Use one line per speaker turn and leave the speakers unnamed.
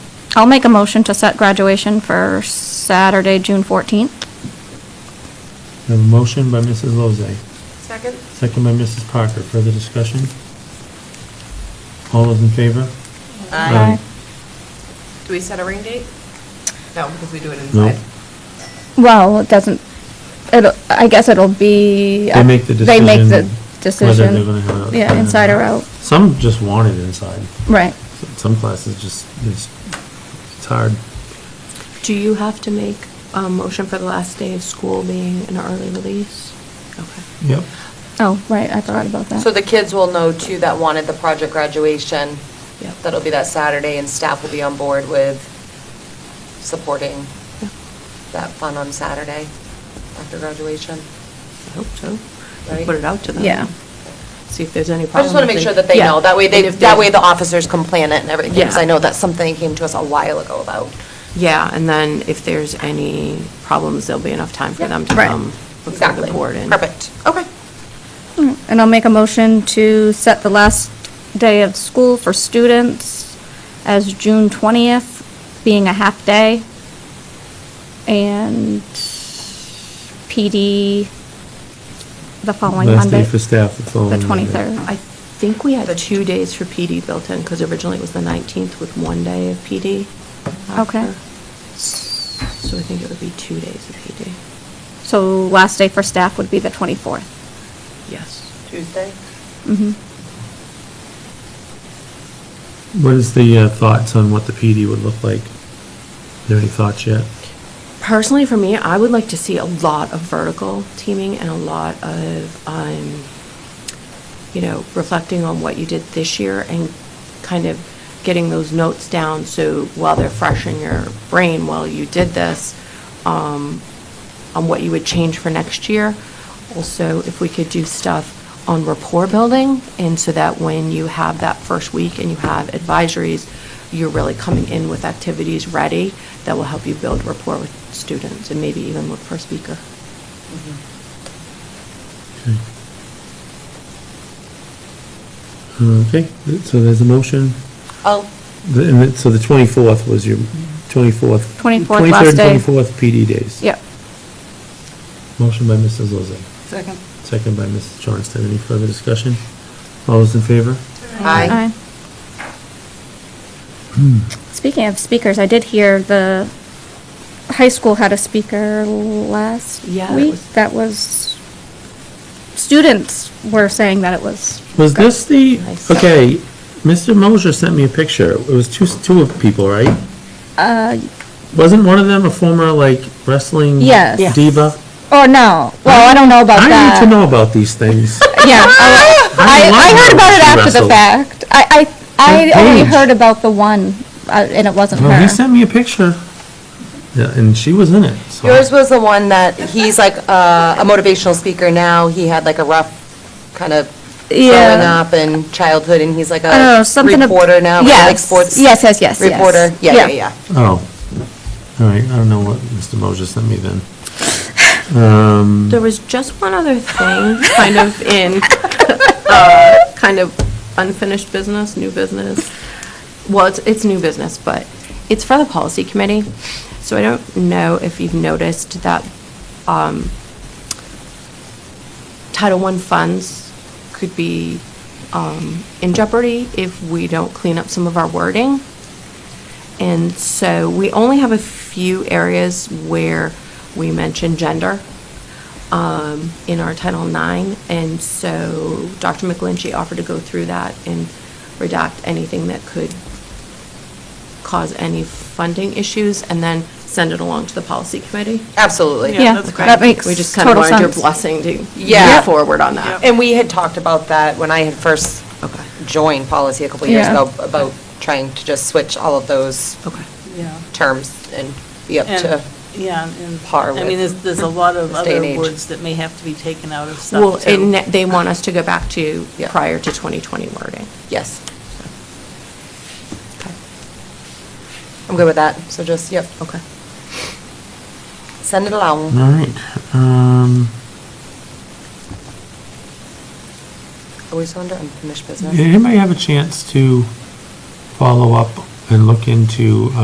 I'll make a motion to set graduation for Saturday, June 14th.
We have a motion by Mrs. Lozay,
Second?
second by Mrs. Parker. Further discussion? All those in favor? Um,
Aye.
Do we set a ring date? No, because we do it
No.
inside.
Well, it doesn't, it'll, I guess it'll be.
They make the
They
decision.
make the
Whether
decision.
they're gonna have it.
Yeah, inside or out,
Some just want it inside.
right.
Some classes just, it's, it's hard.
Do you have to make a motion for the last day of school being an early release? Okay.
Yep.
Oh, right, I forgot about that.
So the kids will know too that wanted the project graduation.
Yep.
That'll be that Saturday and staff will be on board with supporting
Yep.
that fun on Saturday after graduation.
I hope so.
Right.
Put it out to them.
Yeah.
See if there's any
I
problem.
just want to make
if
sure that they
Yeah.
know. That way, they,
And if
that
there's-
way the officers can plan it and everything. Because
Yeah.
I know that's something that came to us a while ago about.
Yeah, and then if there's any problems, there'll be enough time for
Yeah.
them to
Right.
come before
Exactly.
the board. and-
Perfect. Okay.
And I'll make a motion to set the last day of school for students as June 20th, being a half day. And PD the following
Last
Monday.
day for staff, the following Monday.
23rd.
I think we had two days for PD built in, because originally it was the 19th with one day of PD.
Okay.
after. So I think it would be two days of PD.
So last day for staff would be the 24th.
Yes.
Tuesday?
Mhm.
What is the uh, thoughts on what the PD would look like? Is there any thoughts yet?
Personally, for me, I would like to see a lot of vertical teaming and a lot of, um, you know, reflecting on what you did this year and kind of getting those notes down so while they're fresh in your brain, while you did this, um, on what you would change for next year. Also, if we could do stuff on rapport building, and so that when you have that first week and you have advisories, you're really coming in with activities ready that will help you build rapport with students and maybe even look for a speaker.
Okay. Okay, th- so there's a motion.
Oh,
The- and it- So the 24th was your, 24th?
24th, last day.
23rd, 24th PD days.
Yep.
Motion by Mrs. Lozay,
second.
second by Mrs. Johnston. Any further discussion? All those in favor?
Aye.
Speaking of speakers, I did hear the high school had a speaker last
Yeah, that
week
was-
that was, students were saying that it was.
Was
good.
this the,
Nice.
okay, Mr. Moser sent me a picture. It was two, two of people, right?
Uh,
Wasn't one of them a former, like, wrestling
Yes. uh, Yes.
diva?
oh, no. Well, I don't know about that.
I need to know about these things.
Yeah, I, I
love
I heard
how
about it
she
after the
wrestled.
fact. I, I,
That
I only
page.
heard about the one, uh, and it wasn't
Well,
her.
he sent me a picture, yeah, and she was in it, so.
Yours was the one that, he's like uh, a motivational speaker now. He had like a rough kind of growing
Yeah.
up and childhood, and he's like
I don't know,
a
Oh, something. ab-
Oh, reporter now, right? like
Yes,
sports
Yes, yes, yes, yes.
reporter. Yeah, yeah, yeah.
Oh, all right, I don't know what Mr. Moser sent me then. Um,
There was just one other thing, kind of in, uh, kind of unfinished business, new business. Well, it's, it's new business, but it's for the policy committee. So I don't know if you've noticed that um, Title I funds could be um, in jeopardy if we don't clean up some of our wording. And so we only have a few areas where we mention gender um, in our Title IX. And so Dr. McGlinchey offered to go through that and redact anything that could cause any funding issues and then send it along to the policy committee.
Absolutely.
Yeah, that makes
We just kind of
total
wanted your
sense.
blessing to
Yeah.
move forward on that.
Uh, And we had talked about that when I had first
Okay.
joined policy a couple years
Yeah.
ago, about trying to just switch all of those
Okay.
Yeah.
terms and be up
And-
to,
Yeah, and,
par
I
with
mean, there's, there's a lot of
this day and
other
age.
words that may have to be taken out of
Well,
stuff,
and
too.
that- they want us to go back to
Yeah.
prior to 2020 wording.
yes. I'm good with that, so just, yep,
Okay.
send it
all
along.
right, um,
Are we still under unfinished business?
did anybody have a chance to follow up and look into,